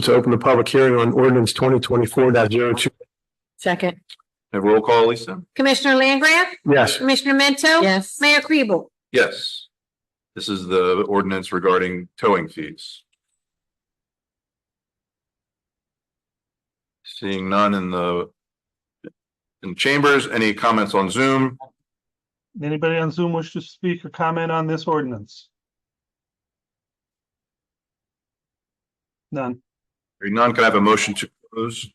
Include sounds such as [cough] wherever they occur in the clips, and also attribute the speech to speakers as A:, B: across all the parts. A: To open the public hearing on ordinance twenty twenty-four 2
B: Second.
C: Have roll call, Lisa?
D: Commissioner Langgraf?
A: Yes,
D: Commissioner Mento?
B: Yes.
D: Mayor Kribel?
C: Yes. This is the ordinance regarding towing fees. Seeing none in the in chambers, any comments on Zoom?
E: Anybody on Zoom wish to speak or comment on this ordinance? None.
C: Hearing none, can I have a motion to close?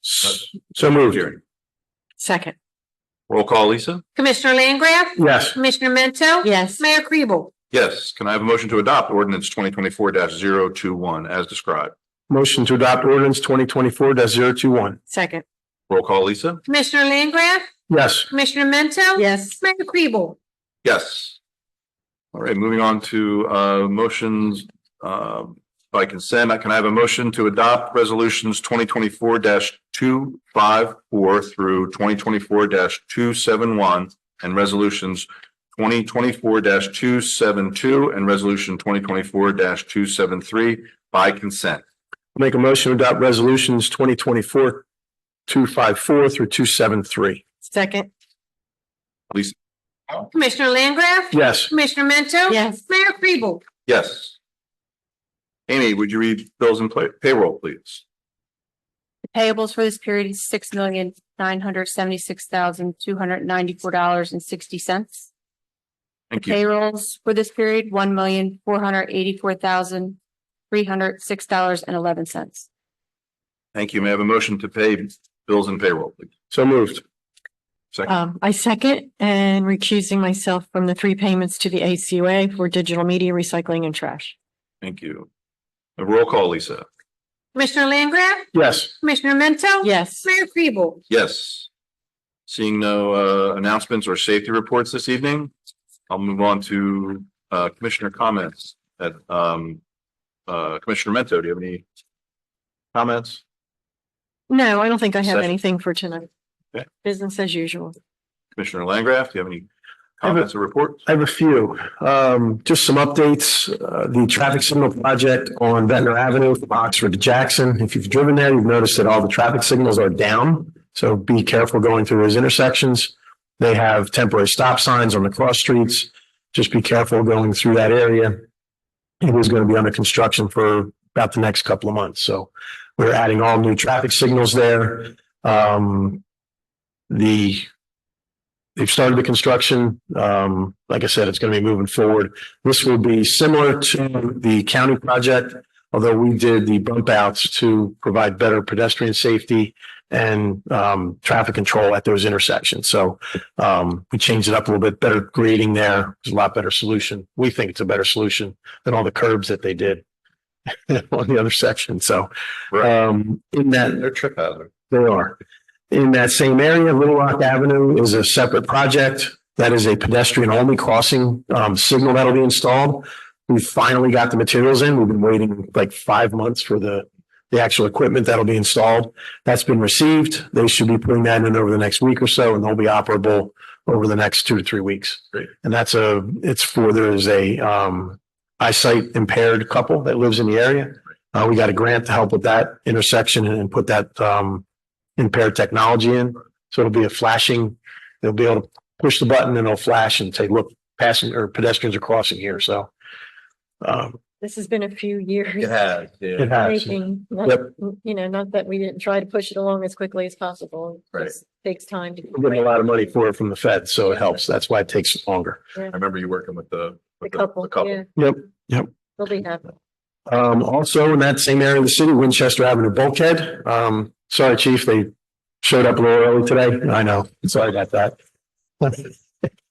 A: so moved.
C: Hearing.
B: Second.
C: Roll call, Lisa?
D: Commissioner Langgraf?
A: Yes,
D: Commissioner Mento?
B: Yes.
D: Mayor Kribel?
C: Yes, can I have a motion to adopt ordinance twenty twenty-four 21 as described?
A: motion to adopt ordinance twenty twenty-four 21
B: Second.
C: Roll call, Lisa?
D: Commissioner Langgraf?
A: Yes,
D: Commissioner Mento?
B: Yes.
D: Mayor Kribel?
C: Yes. All right, moving on to uh motions uh by consent. Can I have a motion to adopt resolutions twenty twenty four two five four through twenty twenty four two seven one and resolutions twenty twenty four two seven two and resolution twenty twenty four two seven three by consent?
A: make a motion to adopt resolutions twenty twenty-four two five four through two seven three.
B: Second.
D: Commissioner Langgraf?
A: Yes,
D: Commissioner Mento?
B: Yes.
D: Mayor Kribel?
C: Yes. Amy, would you read bills and pay- payroll, please?
F: Payables for this period is six million, nine hundred seventy-six thousand, two hundred ninety-four dollars and sixty cents.
C: Thank you.
F: Payrolls for this period, one million, four hundred eighty-four thousand, three hundred six dollars and eleven cents.
C: Thank you. May I have a motion to pay bills and payroll, please?
A: so moved.
C: Second.
B: Um, I second and recusing myself from the three payments to the ACUA for digital media recycling and trash.
C: Thank you. A roll call, Lisa.
D: Commissioner Langgraf?
A: Yes,
D: Commissioner Mento?
B: Yes.
D: Mayor Kribel?
C: Yes. Seeing no uh announcements or safety reports this evening, I'll move on to uh commissioner comments at um uh Commissioner Mento, do you have any comments?
B: No, I don't think I have
C: Second.
B: anything for tonight.
C: Okay.
B: Business as usual.
C: Commissioner Langgraf, do you have any
A: I have a- Uh,
C: comments or reports?
A: I have a few. Um, just some updates. Uh, the traffic signal project on Ventnor Avenue from Oxford to Jackson. If you've driven there, you've noticed that all the traffic signals are down. So be careful going through those intersections. They have temporary stop signs on the cross streets. Just be careful going through that area. It is going to be under construction for about the next couple of months. So we're adding all new traffic signals there. Um, the they've started the construction. Um, like I said, it's going to be moving forward. This will be similar to the county project, although we did the bump outs to provide better pedestrian safety and um, traffic control at those intersections. So um, we changed it up a little bit, better grading there. It's a lot better solution. We think it's a better solution than all the curbs that they did [laughs] on the other section. So um, in that
C: They're trip hazard.
A: they are. In that same area, Little Rock Avenue is a separate project. That is a pedestrian only crossing um signal that'll be installed. We finally got the materials in. We've been waiting like five months for the the actual equipment that'll be installed. That's been received. They should be putting that in over the next week or so and they'll be operable over the next two to three weeks.
C: Great.
A: And that's a, it's for, there is a um eyesight impaired couple that lives in the area. Uh, we got a grant to help with that intersection and and put that um impaired technology in. So it'll be a flashing, they'll be able to push the button and it'll flash and say, look, passing or pedestrians are crossing here. So um,
B: This has been a few years.
C: has, yeah.
A: it has.
B: Making,
A: Yep.
B: not- you know, not that we didn't try to push it along as quickly as possible. It
C: Right.
B: just Takes time to.
A: We're getting a lot of money for it from the Fed, so it helps. That's why it takes longer.
C: I remember you working with the
B: The
C: with the
B: couple,
C: the couple.
B: yeah.
A: Yep, yep.
B: They'll be happy.
A: Um, also in that same area of the city, Winchester Avenue Bulkhead. Um, sorry, chief, they showed up a little early today. I know. Sorry about that.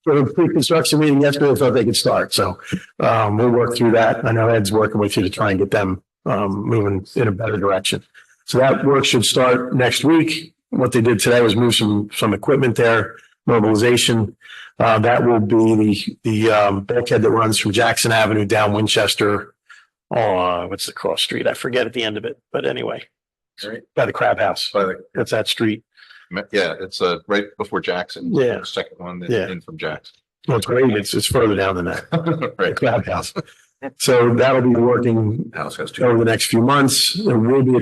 A: For the pre-construction meeting yesterday, I thought they could start. So, um, we'll work through that. I know Ed's working with you to try and get them, um, moving in a better direction. So that work should start next week. What they did today was move some, some equipment there, mobilization. Uh, that will be the, the, um, bulkhead that runs from Jackson Avenue down Winchester Oh, uh, what's the cross street? I forget at the end of it, but anyway.
C: Right.
A: By the crab house.
C: By the
A: That's that street.
C: Yeah, it's uh right before Jackson.
A: Yeah.
C: Second one,
A: Yeah. [laughs]
C: in from Jackson.
A: Well, it's great. It's, it's further down than that.
C: Right.
A: Crab house. So that'll be working
C: House has two.
A: over the next few months. There will be a